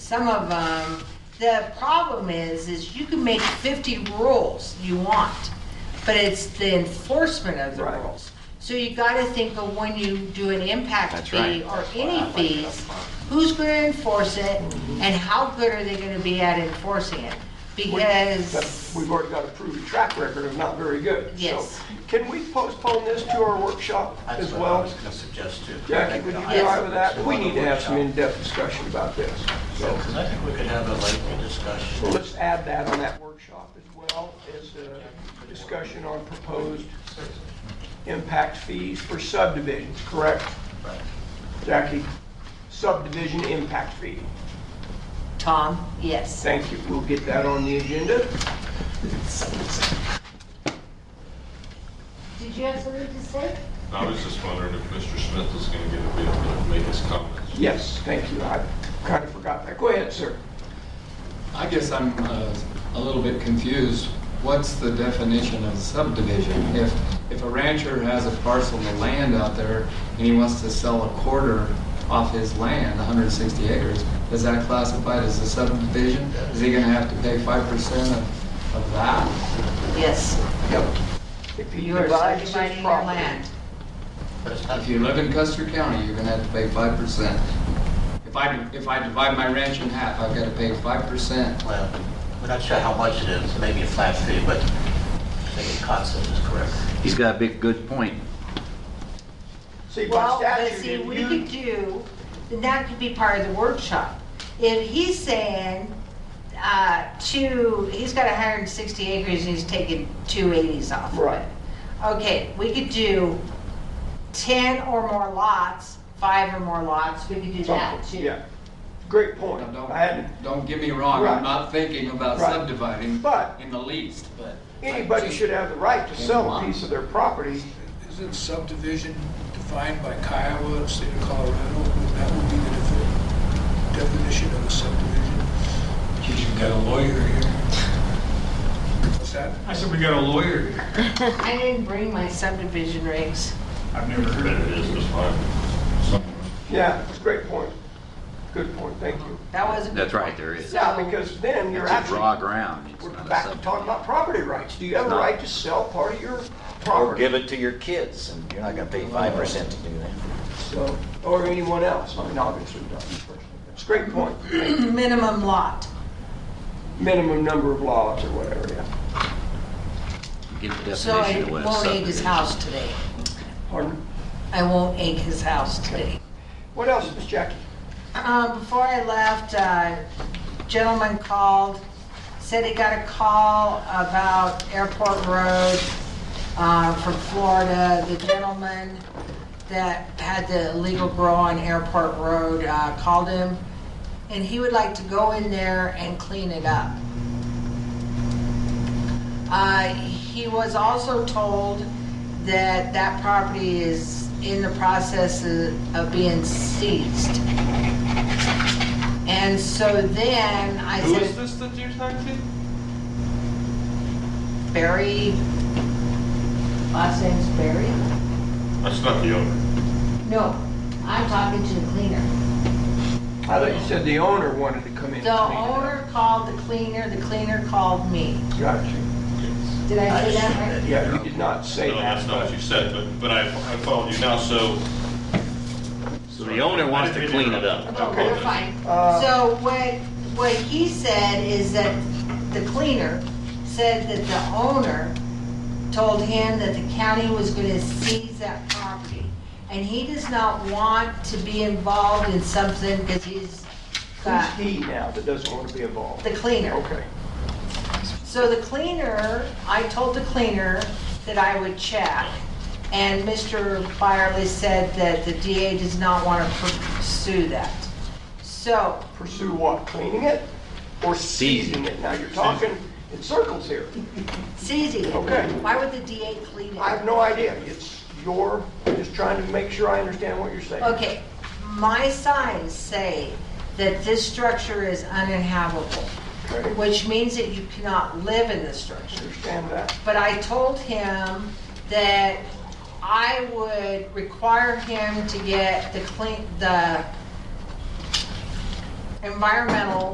some of them, the problem is, is you can make fifty rules you want, but it's the enforcement of the Right. rules. So you gotta think of when you do an impact That's fee right. or any fees, who's gonna enforce it, Mm-hmm. and how good are they gonna be at enforcing it? But Because, We've already got a proven track record of not very good. Yes. So Can we postpone this to our workshop as That's what I well? was gonna suggest too. Jackie, would you be all right with that? We need to have some in-depth discussion about this. So Because I think we could have a lengthy discussion. so let's add that on that workshop as well as a discussion on proposed impact fees for subdivisions, correct? Right. Jackie, subdivision impact fee. Tom, yes. Thank you. We'll get that on the agenda. Did you have something to say? I was just wondering if Mr. Smith was going to get a bit to make his comments. Yes, thank you. I kind of forgot that. Go ahead, sir. I guess I'm uh, a little bit confused. What's the definition of subdivision? If, if a rancher has a parcel of land out there and he wants to sell a quarter off his land, 160 acres, is that classified as a subdivision? Is he going to have to pay 5% of, of that? Yes, Yep. If he you are divides his subdividing your property. land. But it's not, If you live in Custer County, you're going to have to pay 5%. If I, if I divide my ranch in half, I've got to pay 5%. well, we're not sure how much it is, maybe a flat fee, but I think the concept is correct. He's got a big, good point. See, by Well, but statute, see, if we you, could do, and that could be part of the workshop. If he's saying, uh, two, he's got hundred and sixty acres and he's taking two eighties off of it. Right. Okay, we could do ten or more lots, five or more lots, we could do that something, too. yeah. Great point. Now, I hadn't, Don't, don't get me wrong, Right. I'm not thinking about Right. subdividing But- in the least, but. anybody should have the right to sell a Come on. piece of their property. Isn't subdivision defined by Kiowa, the state of Colorado? That would be the defi- definition of a subdivision. Geez, you got a lawyer here. What's that? I said, we got a lawyer here. I didn't bring my subdivision rigs. I've never heard But of it is just fine. Yeah, it's a great point. Good point, thank you. That was a good That's right, point. there is. Yeah, So- because then you're It's a actually, raw ground. It's we're not a back to talking subdivision. about property rights. Do you have a It's not. right to sell part of your Or property? give it to your kids, and you're not gonna pay five percent to do that. So, or anyone else, I mean, obviously not me personally. It's a great point. Minimum lot. Minimum number of lots or whatever, yeah. Give the So I definition of what a won't egg his subdivision house today. Pardon? I won't egg his house today. What else, Miss Jackie? Um, before I left, uh, gentleman called, said he got a call about Airport Road, uh, from Florida. The gentleman that had the illegal grow on Airport Road, uh, called him, and he would like to go in there and clean it up. Uh, He was also told that that property is in the process of of being seized. And so then I Who is said, this that you're talking to? Barry, last name's Barry? That's not the owner. No, I'm talking to the cleaner. I thought you said the owner wanted to come in. and The clean it up. owner called the cleaner, the cleaner called me. Got you. Did I say that right? Yeah, you did not say No, that. that's not what you said, but, but I, I followed you now, so. So the owner wants to clean it up. Okay, we're fine. Uh, So what, what he said is that the cleaner said that the owner told him that the county was gonna seize that property. And he does not want to be involved in something because he's got Who's he now that doesn't want to be involved? the cleaner. Okay. So the cleaner, I told the cleaner that I would check. And Mr. Byerly said that the DA does not want to pursue that. So Pursue what, cleaning it or seizing it? Now you're talking in circles here. Suzie, Okay. why would the DA clean I have it? no idea. It's your, I'm just trying to make sure I understand what you're saying. Okay, my signs say that this structure is uninhabitable, Okay. which means that you cannot live in this structure. Understand that? But I told him that I would require him to get the clean, the environmental